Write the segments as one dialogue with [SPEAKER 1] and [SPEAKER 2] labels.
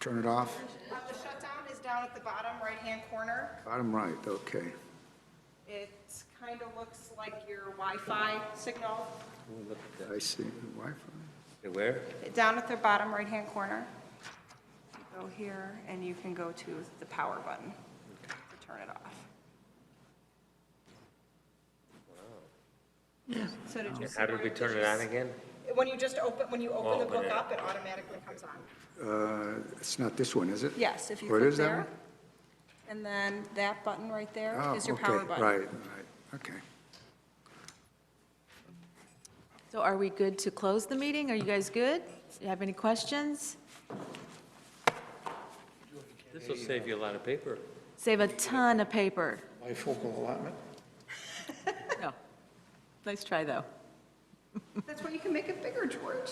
[SPEAKER 1] Turn it off?
[SPEAKER 2] Um, The shutdown is down at the bottom right-hand corner.
[SPEAKER 1] Bottom right, okay.
[SPEAKER 2] It kind of looks like your Wi-Fi signal.
[SPEAKER 1] I see Wi-Fi.
[SPEAKER 3] Where?
[SPEAKER 2] Down at the bottom right-hand corner. Go here, and you can go to the power button to turn it off. So did you see?
[SPEAKER 3] How did we turn it on again?
[SPEAKER 2] When you just open, when you open the
[SPEAKER 3] Oh, when
[SPEAKER 2] book
[SPEAKER 3] it-
[SPEAKER 2] up, it automatically comes on.
[SPEAKER 1] Uh, It's not this one, is it?
[SPEAKER 2] Yes, if you
[SPEAKER 1] What
[SPEAKER 2] click
[SPEAKER 1] is that
[SPEAKER 2] there.
[SPEAKER 1] one?
[SPEAKER 2] And then that button right there
[SPEAKER 1] Oh,
[SPEAKER 2] is your
[SPEAKER 1] okay,
[SPEAKER 2] power button.
[SPEAKER 1] Right, right, okay.
[SPEAKER 4] So are we good to close the meeting? Are you guys good? You have any questions?
[SPEAKER 3] This will save you a lot of paper.
[SPEAKER 4] Save a ton of paper.
[SPEAKER 5] bifocal allotment?
[SPEAKER 4] No. Nice try, though.
[SPEAKER 2] That's why you can make it bigger, George.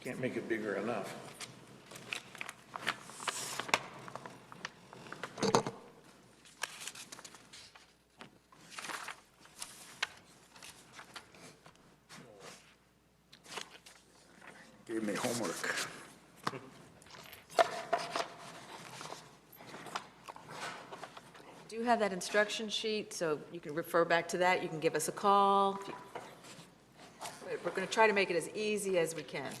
[SPEAKER 5] Can't make it bigger enough.
[SPEAKER 1] Gave me homework.
[SPEAKER 4] Do you have that instruction sheet, so you can refer back to that. You can give us a call. If you- But We're going to try to make it as easy as we can.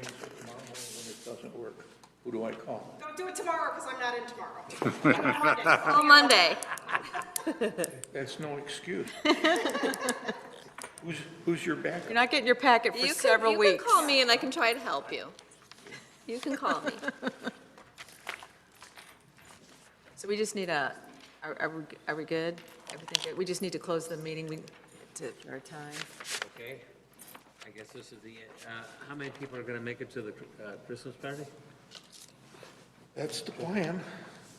[SPEAKER 5] When it doesn't work, who do I call?
[SPEAKER 2] Don't do it tomorrow, because I'm not in tomorrow.
[SPEAKER 4] Till Monday.
[SPEAKER 5] That's no excuse. Who's, who's your backup?
[SPEAKER 4] You're not getting your packet for
[SPEAKER 6] You can-
[SPEAKER 4] several
[SPEAKER 6] You
[SPEAKER 4] weeks.
[SPEAKER 6] can call me and I can try to help you. You can call me.
[SPEAKER 4] So we just need a, are, are we, are we good? Everything good? We just need to close the meeting, we, to our time.
[SPEAKER 3] Okay. I guess this is the, uh, how many people are going to make it to the uh, Christmas party?
[SPEAKER 5] That's the plan.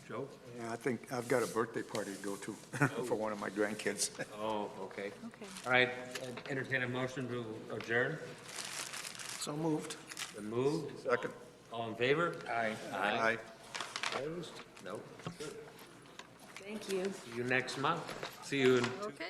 [SPEAKER 3] Joe?
[SPEAKER 1] Yeah, I think, I've got a birthday party to go to for one of my grandkids.
[SPEAKER 3] Oh, okay.
[SPEAKER 4] Okay.
[SPEAKER 3] All right, uh, entertain a motion to adjourn.
[SPEAKER 5] So moved.
[SPEAKER 3] Been moved.
[SPEAKER 1] Second.
[SPEAKER 3] All in favor?
[SPEAKER 5] Aye.
[SPEAKER 1] Aye.
[SPEAKER 3] Aye. Nope.
[SPEAKER 4] Thank you.
[SPEAKER 3] See you next month. See you in
[SPEAKER 6] Okay.